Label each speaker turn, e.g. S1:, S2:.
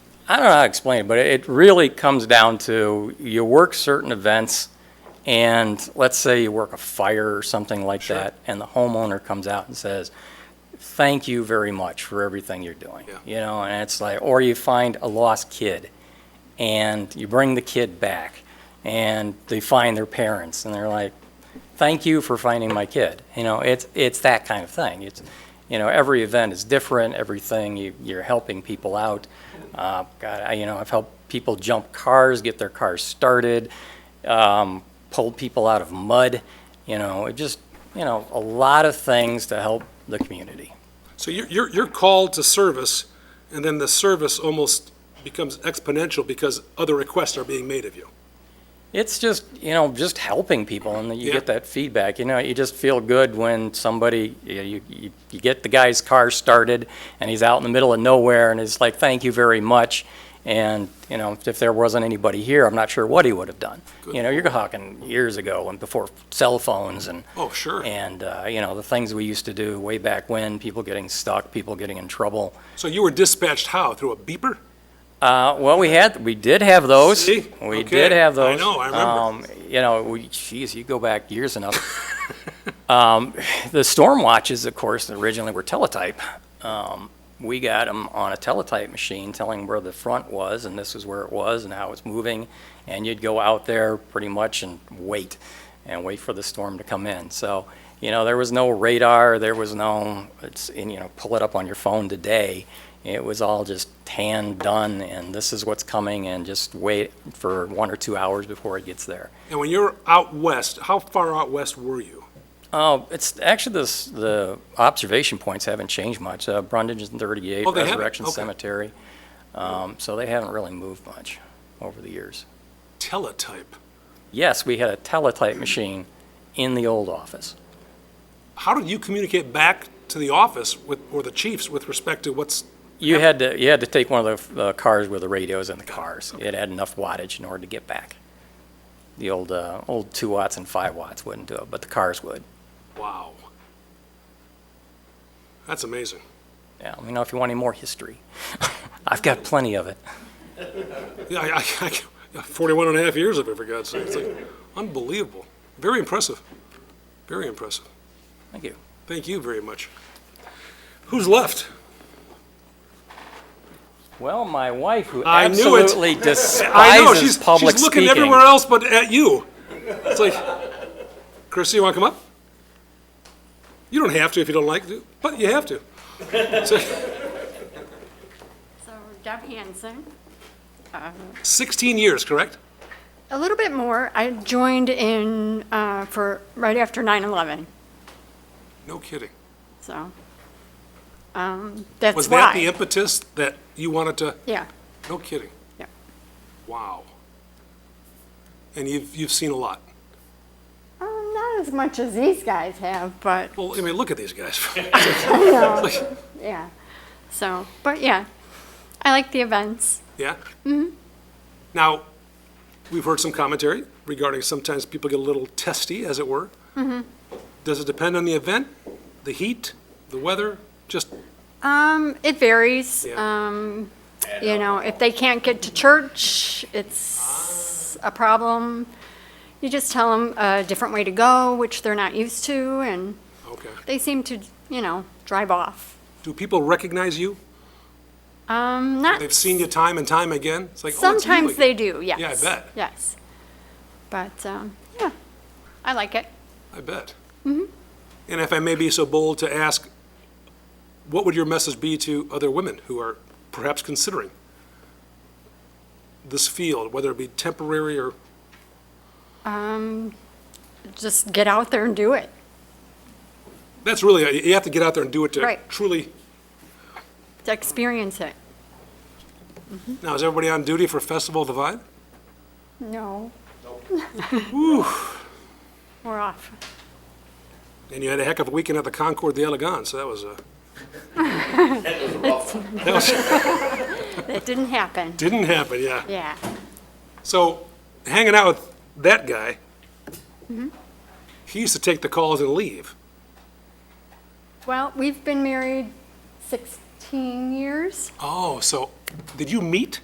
S1: I don't know how to explain it, but it really comes down to you work certain events, and let's say you work a fire or something like
S2: Sure.
S1: that, and the homeowner comes out and says, "Thank you very much for everything you're doing."
S2: Yeah.
S1: You know, and it's like, or you find a lost kid, and you bring the kid back, and they find their parents, and they're like, "Thank you for finding my kid." You know, it's it's that kind of thing. It's you know, every event is different. Everything you, you're helping people out. Uh, God, I, you know, I've helped people jump cars, get their cars started, um, pulled people out of mud. You know, it just you know a lot of things to help the community.
S2: So you're, you're, you're called to service, and then the service almost becomes exponential because other requests are being made of you.
S1: It's just, you know, just helping people and then you
S2: Yeah.
S1: get that feedback. You know, you just feel good when somebody, you, you- you, you get the guy's car started and he's out in the middle of nowhere and it's like, thank you very much. And, you know, if there wasn't anybody here, I'm not sure what he would have done. You know, you're talking years ago and before cell phones and,
S2: Oh, sure.
S1: and, uh, you know, the things we used to do way back when, people getting stuck, people getting in trouble.
S2: So you were dispatched how? Through a beeper?
S1: Uh, well, we had, we did have those.
S2: See?
S1: We
S2: Okay.
S1: did have
S2: I
S1: those.
S2: know, I remember.
S1: Um, You know, we, geez, you go back years enough. Um, The storm watches, of course, originally were teletype. Um, We got them on a teletype machine telling where the front was, and this is where it was and how it's moving. And you'd go out there pretty much and wait, and wait for the storm to come in. So, you know, there was no radar, there was no, it's, and, you know, pull it up on your phone today. It was all just hand done, and this is what's coming, and just wait for one or two hours before it gets there.
S2: And when you're out west, how far out west were you?
S1: Oh, it's actually this, the observation points haven't changed much. Uh, Brundage is 38,
S2: Oh, they haven't?
S1: Resurrection
S2: Okay.
S1: Cemetery. Um, so they haven't really moved much over the years.
S2: Teletype.
S1: Yes, we had a teletype machine in the old office.
S2: How did you communicate back to the office with, or the chiefs with respect to what's,
S1: You had to, you had to take one of the uh, cars with the radios in the cars. It had enough wattage in order to get back. The old, uh, old two watts and five watts wouldn't do it, but the cars would.
S2: wow. That's amazing.
S1: Yeah, let me know if you want any more history. I've got plenty of it.
S2: Yeah, I, I- I- yeah, 41 and a half years of it, for God's sake. It's like unbelievable. Very impressive. Very impressive.
S1: Thank you.
S2: Thank you very much. Who's left?
S1: Well, my wife, who
S2: I knew it.
S1: absolutely
S2: I know,
S1: despises
S2: she's,
S1: public
S2: she's looking
S1: speaking.
S2: everywhere else but at you. It's like, Chrissy, you want to come up? You don't have to if you don't like to, but you have to. So,
S3: So Deb Hansen,
S2: 16 years, correct?
S3: a little bit more. I joined in uh, for right after 9/11,
S2: No kidding.
S3: so um, that's
S2: Was
S3: why.
S2: that the impetus that you wanted to,
S3: yeah,
S2: no kidding?
S3: yeah.
S2: Wow. And you've, you've seen a lot.
S3: Uh, not as much as these guys have, but
S2: Well, I mean, look at these guys.
S3: yeah. So, but yeah, I like the events.
S2: Yeah? Mm-hmm. Now, we've heard some commentary regarding sometimes people get a little testy, as it were. Mm-hmm. Does it depend on the event, the heat, the weather? Just,
S3: Um, it varies.
S2: Yeah.
S3: Um, you know, if they can't get to church, it's a problem. You just tell them a different way to go, which they're not used to, and.
S2: okay.
S3: they seem to, you know, drive off.
S2: Do people recognize you?
S3: Um, not
S2: They've seen you time and time again? It's like, oh, it's you
S3: sometimes
S2: again.
S3: they do. Yes.
S2: Yeah, I bet.
S3: Yes, but um, yeah, I like it.
S2: I bet. Mm-hmm. And if I may be so bold to ask, what would your message be to other women who are perhaps considering this field, whether it be temporary or
S3: Um, just get out there and do it.
S2: That's really, you have to get out there and do it to
S3: Right.
S2: truly,
S3: To experience it.
S2: now, is everybody on duty for Festival of the Vine?
S3: No. We're off.
S2: And you had a heck of a weekend at the Concord de Elegance, so that was, uh,
S3: That didn't happen.
S2: didn't happen, yeah.
S3: Yeah.
S2: So, hanging out with that guy, he used to take the calls and leave.
S3: Well, we've been married 16 years.
S2: Oh, so, did you meet?